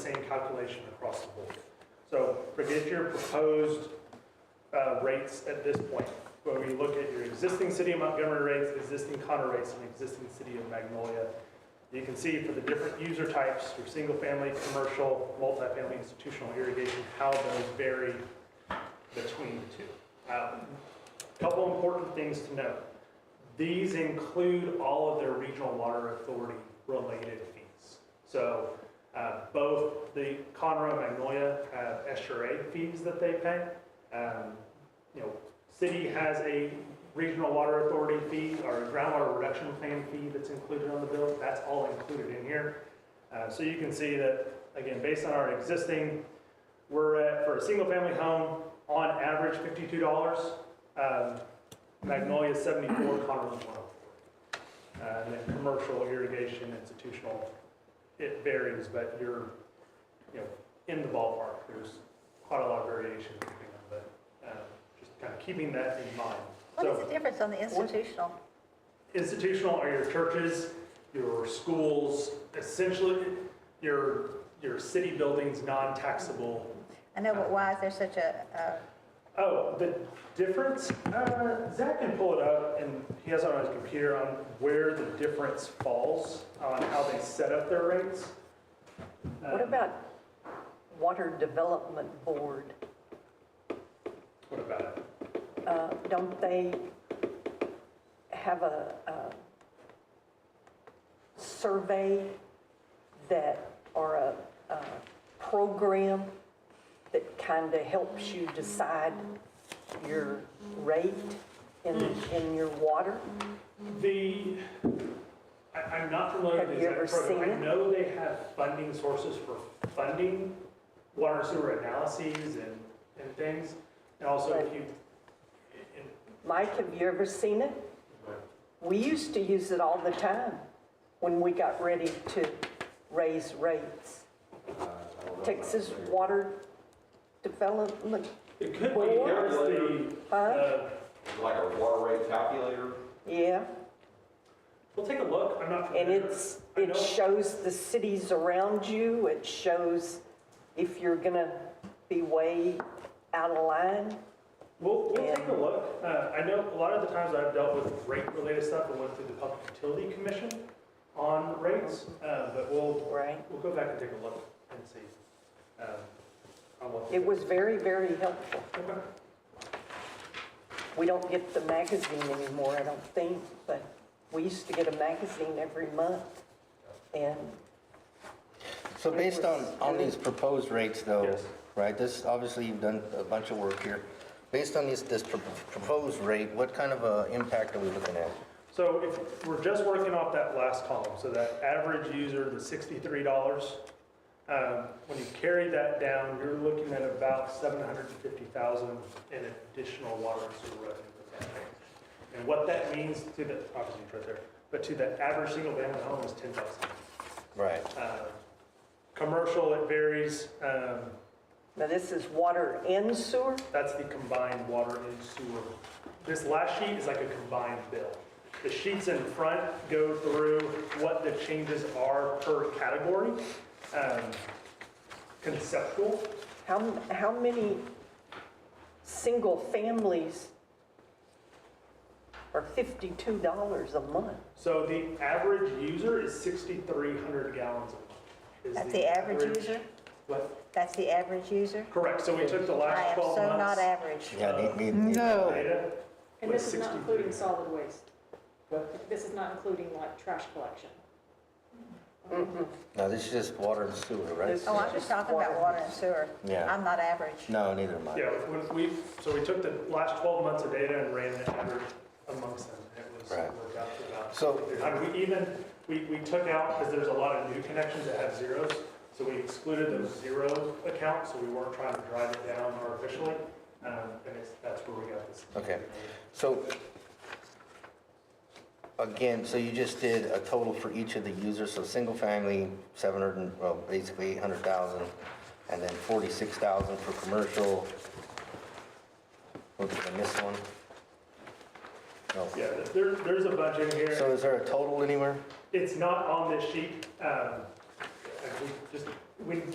same calculation across the board. So forget your proposed uh, rates at this point. Where we look at your existing city of Montgomery rates, existing Connor rates, and existing city of Magnolia. You can see for the different user types, your single-family, commercial, multifamily, institutional irrigation, how those vary between the two. Um, Couple important things to note. These include all of their regional water authority related fees. So uh, both the Conroe and Magnolia have SRA fees that they pay. Um, You know, city has a regional water authority fee or a groundwater reduction plan fee that's included on the bill. That's all included in here. Uh, So you can see that, again, based on our existing we're at, for a single-family home, on average fifty-two dollars. Um, Magnolia seventy-four, Conroe's one oh four. Uh, And then commercial irrigation, institutional, it varies, but you're, you know, in the ballpark. There's quite a lot of variation, depending on the, uh, just kind of keeping that in mind. What is So- the difference on the institutional? institutional are your churches, your schools, essentially your, your city buildings, non-taxable. I know, Uh, but why is there such a, uh, Oh, the difference, uh, Zach can pull it up and he has it on his computer on where the difference falls on how they set up their rates. What Um, about Water Development Board? What about it? Uh, Don't they have a a survey that, or a a program that kind of helps you decide your rate in in your water? The, I, I'm not familiar with the Have you exact ever program. I seen it? know they have funding sources for funding water and sewer analyses and, and things. And also if you, and- Mike, have you ever seen it? We used to use it all the time when we got ready to raise rates. Texas Water Development, it could be, Well, there's the, huh? uh, Like a water rate calculator? Yeah, we'll take a look. I'm not and familiar. it's, I it know- shows the cities around you, it shows if you're gonna be way out of line. We'll, we'll take a look. Uh, I know a lot of the times I've dealt with rate-related stuff, I went through the Public Utility Commission on rates, uh, but we'll, Right. We'll go back and take a look and see. um, on what- It was very, very helpful. Okay. We don't get the magazine anymore, I don't think, but we used to get a magazine every month. And So based on, on these proposed rates though, Yes. right, this, obviously you've done a bunch of work here. Based on these, this pro- proposed rate, what kind of a impact are we looking at? So if, we're just working off that last column, so that average user, the sixty-three dollars. um, When you carry that down, you're looking at about seven hundred and fifty thousand in additional water and sewer revenue. for that range. And what that means to the, obviously it's right there, but to the average single-family home is ten thousand. Uh, Right. Commercial, it varies, um, Now, this is water and sewer? That's the combined water and sewer. This last sheet is like a combined bill. The sheets in front go through what the changes are per category, um, conceptual. How, how many single families are $52 a month? So the average user is 6,300 gallons a month. is That's the average user? What? that's the average user? Correct, so we took the I last am 12 months. so not average. Yeah, need- need- need- Data And was this is not 63. including solid waste. What? This is not including like trash collection. Mm. No, this is just water and sewer, right? This- Oh, I'm just talking about water and sewer. Yeah. I'm not average. No, neither am I. Yeah, when we, so we took the last 12 months of data and ran the average amongst them. and It was Right. worked out to about. So- I mean, We even, we, we took out, because there's a lot of new connections that have zeros, so we excluded those zero accounts, so we weren't trying to drive it down artificially. um, And it's, that's where we got this. Okay. So again, so you just did a total for each of the users, so single family, 700, and- well, basically 800,000, and then 46,000 for commercial. What did I miss one? No. Yeah, there, there's a bunch in here. So is there a total anywhere? It's not on this sheet. um, and we Just, we